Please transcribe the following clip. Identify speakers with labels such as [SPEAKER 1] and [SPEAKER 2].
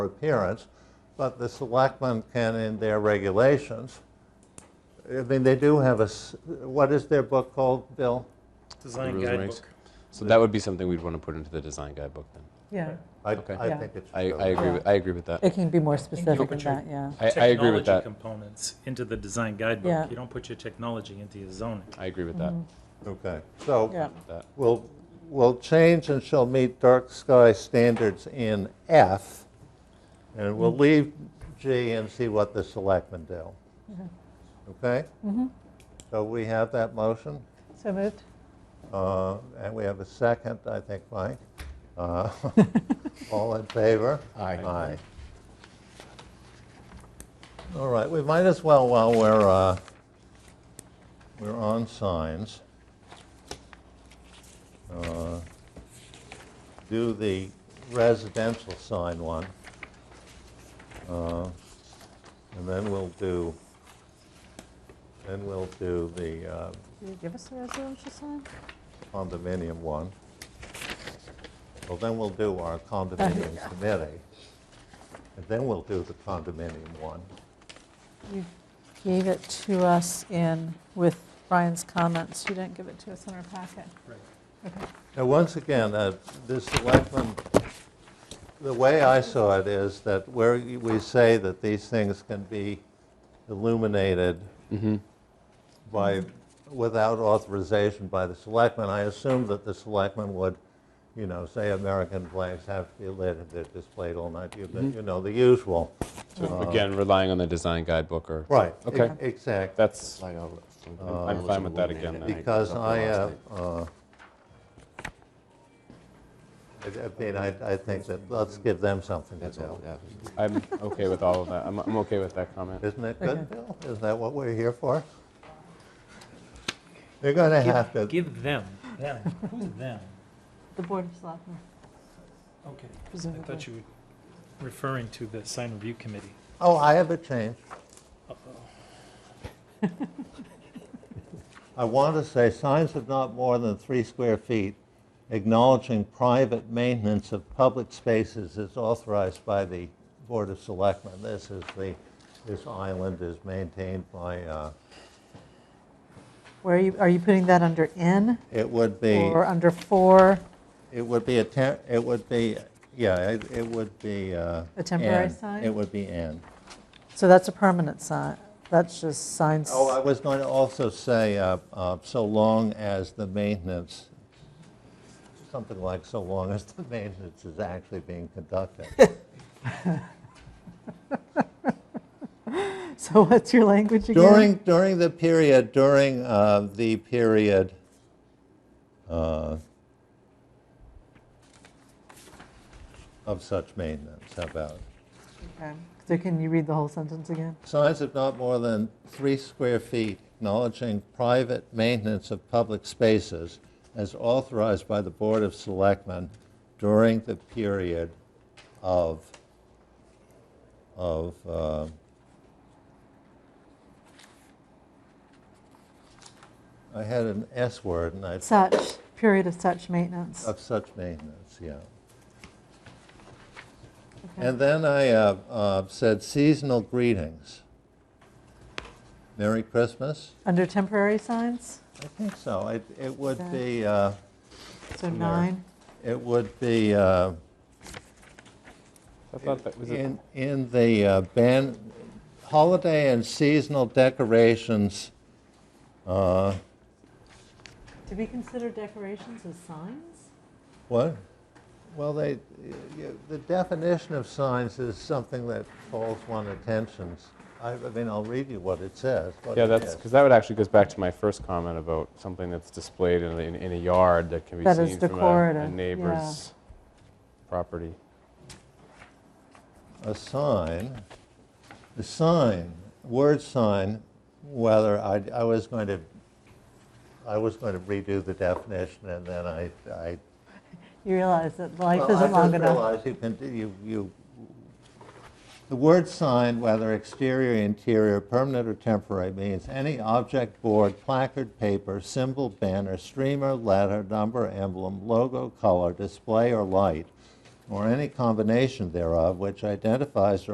[SPEAKER 1] appearance, but the selectmen can, in their regulations, I mean, they do have a, s- what is their book called, Bill?
[SPEAKER 2] Design
[SPEAKER 3] Rules and regs.
[SPEAKER 2] guidebook.
[SPEAKER 3] So that would be something we'd want to put into the design guidebook then.
[SPEAKER 4] Yeah,
[SPEAKER 1] I,
[SPEAKER 3] Okay.
[SPEAKER 1] I
[SPEAKER 4] Yeah.
[SPEAKER 1] think it's.
[SPEAKER 3] I, I agree, with- I agree with that.
[SPEAKER 4] it can be more specific than
[SPEAKER 2] But your
[SPEAKER 4] that, yeah.
[SPEAKER 3] I, I agree
[SPEAKER 2] Technology
[SPEAKER 3] with that.
[SPEAKER 2] components into the design
[SPEAKER 4] Yeah.
[SPEAKER 2] guidebook. You don't put your technology into your zoning.
[SPEAKER 3] I agree with that.
[SPEAKER 4] Mm-hmm.
[SPEAKER 1] Okay, so.
[SPEAKER 4] Yeah,
[SPEAKER 3] That,
[SPEAKER 1] will, will change and shall meet dark sky standards in F, and we'll leave G and see what the selectmen do. Okay? So we have that motion,
[SPEAKER 4] so moved.
[SPEAKER 1] uh, and we have a second, I think, Mike. Uh, All in favor?
[SPEAKER 5] Aye.
[SPEAKER 1] Aye. All right, we might as well, while we're, uh, we're on signs, uh, do the residential sign one. Uh, And then we'll do, then we'll do the uh,
[SPEAKER 4] Will you give us the residential sign?
[SPEAKER 1] condominium one. Well, then we'll do our condominium committee, and then we'll do the condominium one.
[SPEAKER 4] You gave it to us in, with Brian's comments, you didn't give it to us in our packet.
[SPEAKER 1] Now, once again, uh, this selectmen, the way I saw it is that where y- we say that these things can be illuminated by, without authorization by the selectmen, I assume that the selectmen would, you know, say American flags have to be lit and they're displayed all night, you you know, the usual.
[SPEAKER 3] so again, relying on the design guidebook or.
[SPEAKER 1] Right. e-
[SPEAKER 3] Okay.
[SPEAKER 1] Exactly.
[SPEAKER 3] That's,
[SPEAKER 5] Light out.
[SPEAKER 3] I'm fine with that again then.
[SPEAKER 1] Because I,
[SPEAKER 5] uh,
[SPEAKER 1] have, uh, I I mean, I, I think that, let's give them something to
[SPEAKER 5] That's all,
[SPEAKER 1] do.
[SPEAKER 5] yeah.
[SPEAKER 3] I'm okay with all of that. I'm, I'm okay with that comment.
[SPEAKER 1] Isn't that good, Bill? Isn't that what we're here for? They're going to have to,
[SPEAKER 2] Give them, them, who's them?
[SPEAKER 4] The Board of Selectmen,
[SPEAKER 2] Okay. I
[SPEAKER 4] presumably.
[SPEAKER 2] thought you were referring to the sign review committee.
[SPEAKER 1] oh, I have a change. I want to say signs of not more than three square feet acknowledging private maintenance of public spaces is authorized by the Board of Selectmen. This is the, this island is maintained by, uh,
[SPEAKER 4] Where are you, are you putting that under N
[SPEAKER 1] it would be.
[SPEAKER 4] or under four,
[SPEAKER 1] It would be a, tem- it would be, yeah, it it would be. A
[SPEAKER 4] temporary sign?
[SPEAKER 1] It would be an.
[SPEAKER 4] So that's a permanent sign, that's just signs.
[SPEAKER 1] Oh, I was going to also say, uh, uh, so long as the maintenance, something like so long as the maintenance is actually being conducted.
[SPEAKER 4] So what's your language again?
[SPEAKER 1] During, during the period, during uh, the period, uh, of such maintenance, how about? it?
[SPEAKER 4] Okay. So can you read the whole sentence again?
[SPEAKER 1] Signs of not more than three square feet acknowledging private maintenance of public spaces as authorized by the Board of Selectmen during the period of, of, uh, I had an S word and I,
[SPEAKER 4] Such, period of such maintenance.
[SPEAKER 1] of such maintenance, yeah.
[SPEAKER 4] Okay.
[SPEAKER 1] And then I uh, uh, said seasonal greetings. Merry Christmas?
[SPEAKER 4] Under temporary signs,
[SPEAKER 1] I think so. It, it would
[SPEAKER 4] Okay.
[SPEAKER 1] be, uh,
[SPEAKER 4] so nine.
[SPEAKER 1] it would be uh,
[SPEAKER 3] I thought that was a
[SPEAKER 1] in, in the uh, ban, holiday and seasonal decorations, uh,
[SPEAKER 4] Do we consider decorations as signs?
[SPEAKER 1] what? Well, they, you- the definition of signs is something that calls one attentions. I, I mean, I'll read you what it says. what
[SPEAKER 3] Yeah,
[SPEAKER 1] it
[SPEAKER 3] that's,
[SPEAKER 1] is.
[SPEAKER 3] because that would actually goes back to my first comment about something that's displayed in, a- in in a yard that can be
[SPEAKER 4] That is
[SPEAKER 3] seen from a- a
[SPEAKER 4] decorative, yeah.
[SPEAKER 3] neighbor's property.
[SPEAKER 1] a sign, the sign, word sign, whether I, I was going to, I was going to redo the definition and then I, I.
[SPEAKER 4] You realize that life
[SPEAKER 1] Well, I
[SPEAKER 4] isn't long
[SPEAKER 1] just
[SPEAKER 4] enough.
[SPEAKER 1] realized you can, do- you, you, the word sign, whether exterior, interior, permanent or temporary, means any object, board, placard, paper, symbol, banner, streamer, letter, number, emblem, logo, color, display or light or any combination thereof which identifies or